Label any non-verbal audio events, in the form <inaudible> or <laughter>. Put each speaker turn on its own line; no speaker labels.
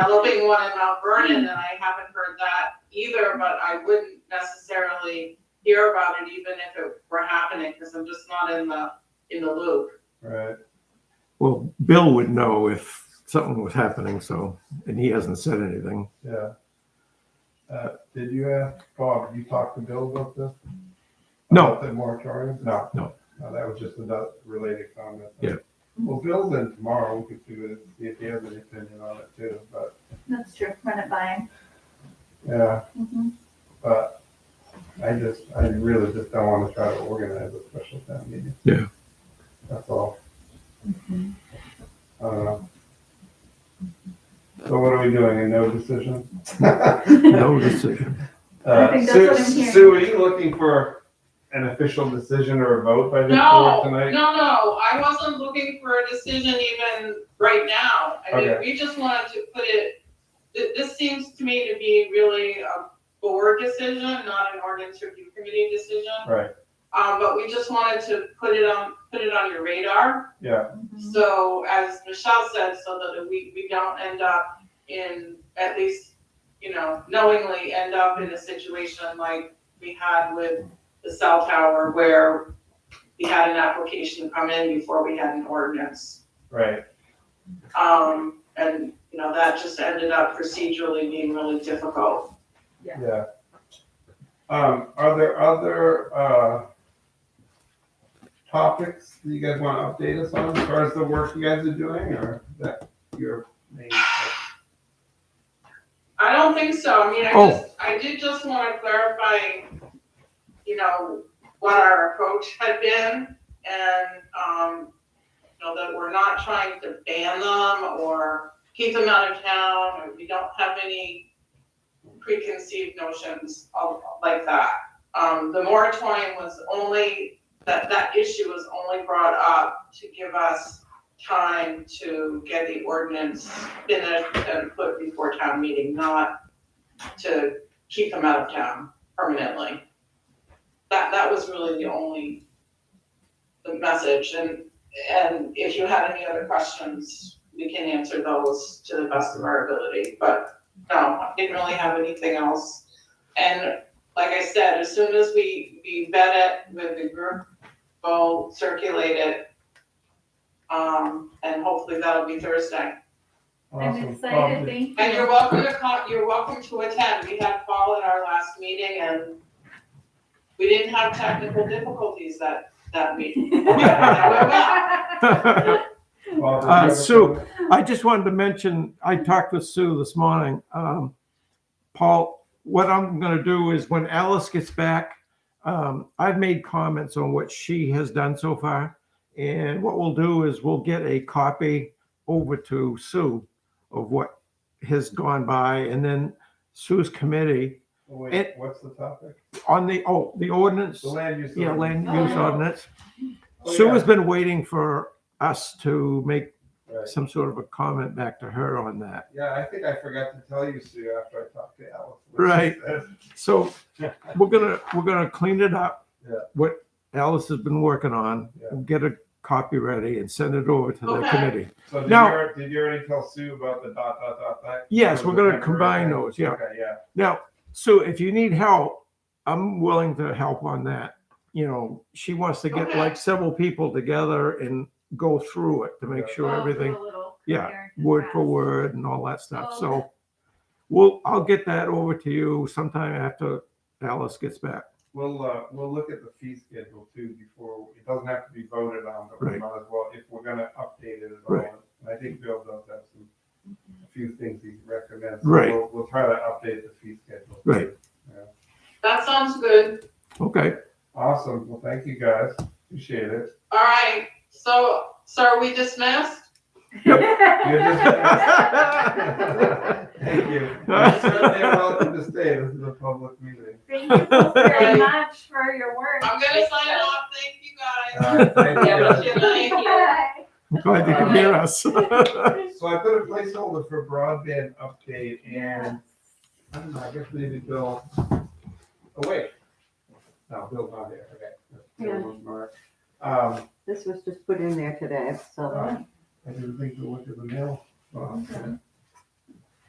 developing one in Mount Vernon, and I haven't heard that either, but I wouldn't necessarily hear about it even if it were happening, because I'm just not in the, in the loop.
Right.
Well, Bill would know if something was happening, so, and he hasn't said anything.
Yeah. Uh, did you ask Bob? You talked to Bill about this?
No,
About The moratorium? No.
No.
that was just a related comment.
Yeah.
Well, Bill's in tomorrow. We could see what- see if he has an opinion on it too, but
That's true, run it by him.
yeah,
Mhm.
but I just, I really just don't want to try to organize a special town meeting.
Yeah.
That's all. I don't know. So what are we doing? A no decision? <laughs>
no decision. <laughs>
I
Uh,
think that's
Sue,
what I'm hearing.
Sue, are you looking for an official decision or a vote by this
No,
board
no,
tonight?
no, I wasn't looking for a decision even right now. I mean, we just wanted to put it, thi- this seems to me to be really a board decision, not an ordinance review committee decision.
Right,
Um, but we just wanted to put it on, put it on your radar.
yeah,
Mm-hmm.
So as Michelle said, so that we, we don't end up in, at least, you know, knowingly end up in a situation like we had with the cell tower where we had an application come in before we had an ordinance.
right,
Um, and, you know, that just ended up procedurally being really difficult.
yeah. Um, are there other, uh, topics that you guys want to update us on as far as the work you guys are doing or that your main?
I don't think so. I mean, I
Oh.
just, I did just want to clarify, you know, what our approach had been and, um, you know, that we're not trying to ban them or keep them out of town, or we don't have any preconceived notions of, like that. Um, the moratorium was only, that, that issue was only brought up to give us time to get the ordinance finished and put before town meeting, not to keep them out of town permanently. That, that was really the only, the message, and, and if you have any other questions, we can answer those to the best of our ability, but no, I didn't really have anything else. And like I said, as soon as we, we vet it with the group, we'll circulate it, um, and hopefully that'll be Thursday.
I'm
Awesome.
excited, thank
And you're
you.
welcome to come, you're welcome to attend, we had Paul at our last meeting and we didn't have technical difficulties that, that meeting. <laughs>
I
Bob, did you
Uh,
have a
Sue.
comment?
just wanted to mention, I talked with Sue this morning. Um, Paul, what I'm gonna do is when Alice gets back, um, I've made comments on what she has done so far. And what we'll do is we'll get a copy over to Sue of what has gone by and then Sue's committee
Oh, Wait,
It-
what's the topic?
on the, oh, the ordinance.
The land use.
Yeah, land
Oh,
use
yeah.
ordinance.
Oh,
Sue
yeah.
has been waiting for us to make
Right.
some sort of a comment back to her on that.
Yeah, I think I forgot to tell you, Sue, after I talked to Alice.
Right.
<laughs>
So
Yeah.
we're gonna, we're gonna clean it up.
Yeah.
What Alice has been working on,
Yeah.
and get a copy ready and send it over to the
Okay.
committee.
So did you,
Now-
already- did you already tell Sue about the dot, dot, dot, dot?
Yes, we're gonna
Okay,
combine
right.
those, yeah.
Okay, yeah,
Now, Sue, if you need help, I'm willing to help on that. You know, she wants to get
Okay.
like several people together and go through it to make
Yeah.
sure
I'll do
everything
a little
yeah,
comparison
word for
graphs. <laughs>
word and all that stuff.
Oh,
So
okay.
we'll, I'll get that over to you sometime after Alice gets back.
we'll, uh, we'll look at the fee schedule too before, it doesn't have to be voted on, but we
Right.
might as well, if we're gonna update it at all.
Right.
And I think Bill does have some, a few things he recommends. So
Right.
We'll, we'll try to update the fee schedule.
Right.
That sounds good,
Okay.
Awesome, well, thank you guys, appreciate
<laughs>
it.
all right, so, so are we dismissed?
You're
Yep.
just- Thank
<laughs>
you. You're certainly welcome to stay, this is a public
<laughs>
meeting.
Thank you so very much for your work.
I'm gonna sign
<laughs>
off, thank you guys.
All right, thank
Have
you.
a good night.
Bye.
I'm glad you can hear us. <laughs>
So I put a placeholder for broadband update and, I don't know, I guess maybe Bill, oh wait. No, Bill's not here, okay. Bill was Mark. Um,
This was just put in there today, so.
I didn't think to look at the mail. Oh, okay.